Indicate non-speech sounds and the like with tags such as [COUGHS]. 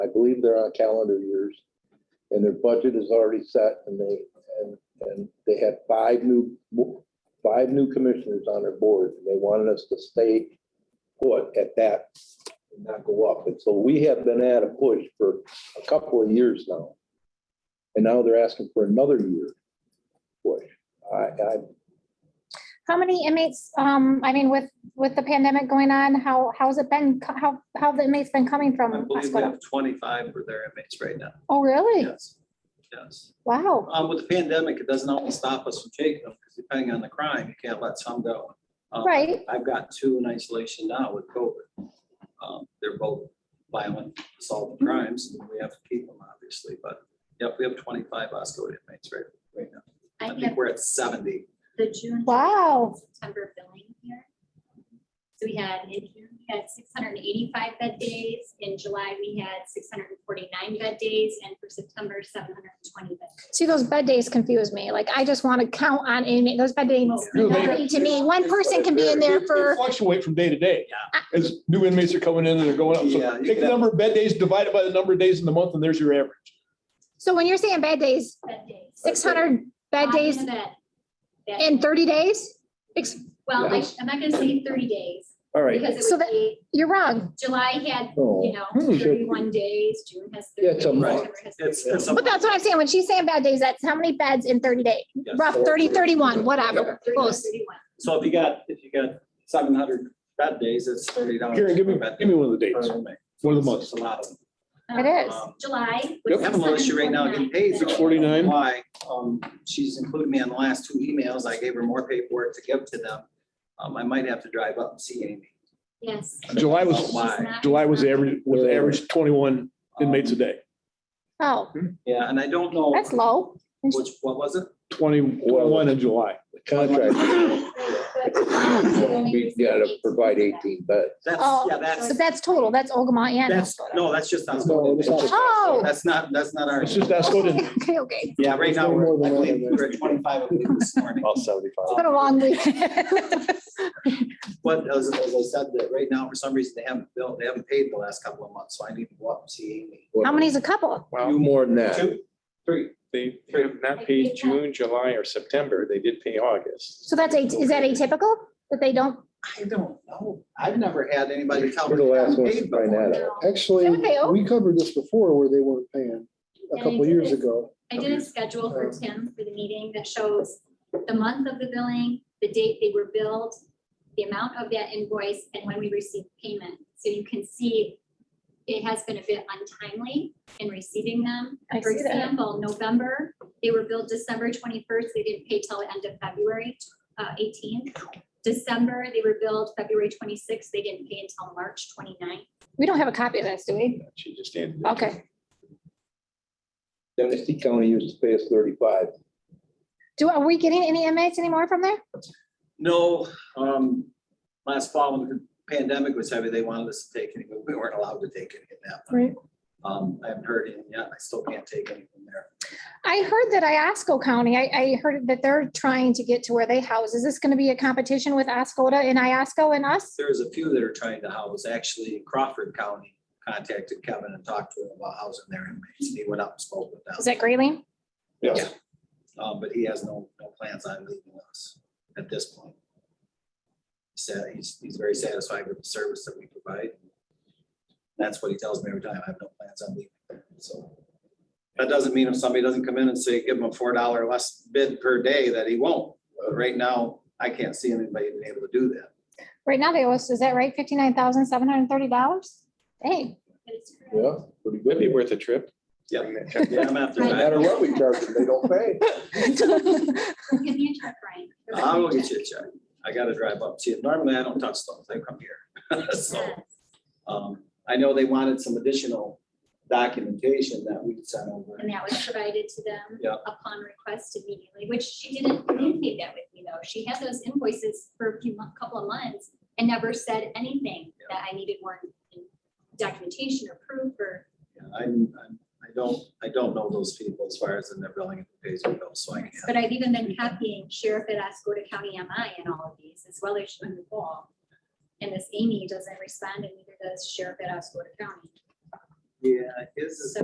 believe they're on calendar years. And their budget is already set and they, and, and they had five new, five new commissioners on their board. and They wanted us to stay put at that, and not go up. And so we have been at a push for a couple of years now. And now they're asking for another year push. I, I, How many inmates, um, I mean, with, with the pandemic going on, how, how's it been, co- how, how have the inmates been coming I from? believe we Pascua? have twenty-five for their inmates right now. Oh, Um, really? Yes. Yes. Wow. Um, with the pandemic, it doesn't always stop us from taking them because depending on the crime, you can't let some go. Um, Right. I've got two in isolation now with COVID. Um, they're both violent assault crimes and we have to keep them obviously, but yep, we have twenty-five Osco inmates right, right now. I I have think we're at seventy. the June. Wow. September billing here. So we had, in June, we had six hundred and eighty-five bed days. In July, we had six hundred and forty-nine bed days, and for September, seven hundred and twenty bed. days. See, those bed days confuse me. Like, I just want to count on inmate, those bed days, No, mean nothing to me, one person can be in there It- it for, Fluctuate from day to day. Yeah. As new inmates are coming in and they're going up. Yeah, So you take can- the number of bed days, divide it by the number of days in the month, and there's your average. so when you're saying bed days, Bed days. six hundred bed Five days in a bed. Bed in days. thirty days? Ex- Well, I- Yes. I'm not gonna say thirty days. all right. Because So it would that- be, You're wrong, July had, you Oh, know, Hmm. thirty-one days, June has thirty. Yeah, it's a days, month. September has It's, 30 it's. a but that's what I'm saying. When she's saying bad days, that's how many beds in thirty days, Yes. rough 30, 31, whatever, days, 31, close. 31. So if you got, if you got seven hundred bad days, it's thirty dollars. Karen, give me, give me one of the dates, one of the months. It's a lot of them. It Um, is. Um, July. We was have a militia right now getting paid. 649. Why? Um, she's included me on the last two emails. I gave her more paperwork to give to them. Um, I might have to drive up and see Amy. Yes. July Oh, was, wow. Why? She's not- July [COUGHS] was average, was average twenty-one Um, inmates a day. Oh, Yeah, and I don't know. that's low. Which, what was it? 20 21 in July. the contract, [COUGHS] we gotta provide eighteen beds. That's, Oh, yeah, But that's, that's total, that's Ogama and. that's, Minnesota. no, that's just not. No, it's not. Oh. That's not, that's not our, It's just escalated. [LAUGHS] Okay, okay, yeah, right now, There's no we're, more I than one believe of we're at twenty-five of them this morning. About seventy-five. [LAUGHS] it's been a long week. But as, as I said, that right now, for some reason, they haven't built, they haven't paid the last couple of months, so I need to go up and see Amy. How many's a couple? You more than that. Two, three, They they have not paid June, July, or September. They did pay August. So that's, a is that atypical that they don't, I don't know. I've never had anybody tell me. We're the they last haven't ones to paid find before. that out. Actually, Don't they owe? we covered this before where they weren't paying a And I couple did years this- ago. I did a schedule for Tim for the meeting that shows the month of the billing, the date they were billed, the amount of that invoice, and when we received payment. So you can see it has been a bit untimely in receiving them. I For see that. example, November, they were billed December twenty-first, they didn't pay till the end of February eighteenth. December, they were billed February twenty-sixth, they didn't pay until March 29th. We don't have a copy of this, do we? She just ended. it. Okay. Genesee County used to pay us thirty-five. Do, are we getting any inmates anymore from there? No, um, last fall when the pandemic was heavy, they wanted us to take any, but we weren't allowed to take any of that. one. Right. Um, I haven't heard any yet. I still can't take any from there. I heard that Iasco County, I, I heard that they're trying to get to where they house. Is this gonna be a competition with Ascoda and Iasco and us? There's a few that are trying to house, actually Crawford County contacted Kevin and talked to him about housing their inmates. and He went up and spoke with them. Is that Grayling? Yes. Um, but he has no, no plans on leaving us at this point. He said, he's, he's very satisfied with the service that we provide. That's what he tells me every time, I have no plans on leaving, so. That doesn't mean if somebody doesn't come in and say, give him a four dollar less bid per day, that he won't. But Right now, I can't see anybody being able to do that. Right now they owe us, is that right? Fifty-nine thousand, seven hundred and thirty dollars? Dang, That is correct. Yeah, pretty That'd be good. worth a trip. Yep. Bring that- Yeah, I'm after No that. matter what we charge them, they don't pay. Give me a check, Brian. I will get you a check. I gotta drive up to you. Normally, I don't touch stuff. They come here. [LAUGHS] So. Yes. Um, I know they wanted some additional documentation that we could send over. And that was provided to them Yeah. upon request immediately, which she didn't communicate that with me though. She had those invoices for a few, mon- couple of months and never said anything that I needed more documentation or proof or, Yeah, I'm, I'm, I don't, I don't know those people as far as in their billing and pays their bills, so I can't. but I've even been copying Sheriff at Ascota County MI in all of these as well as Shannon Paul. And this Amy doesn't respond and neither does Sheriff at Ascota County. Yeah, his is.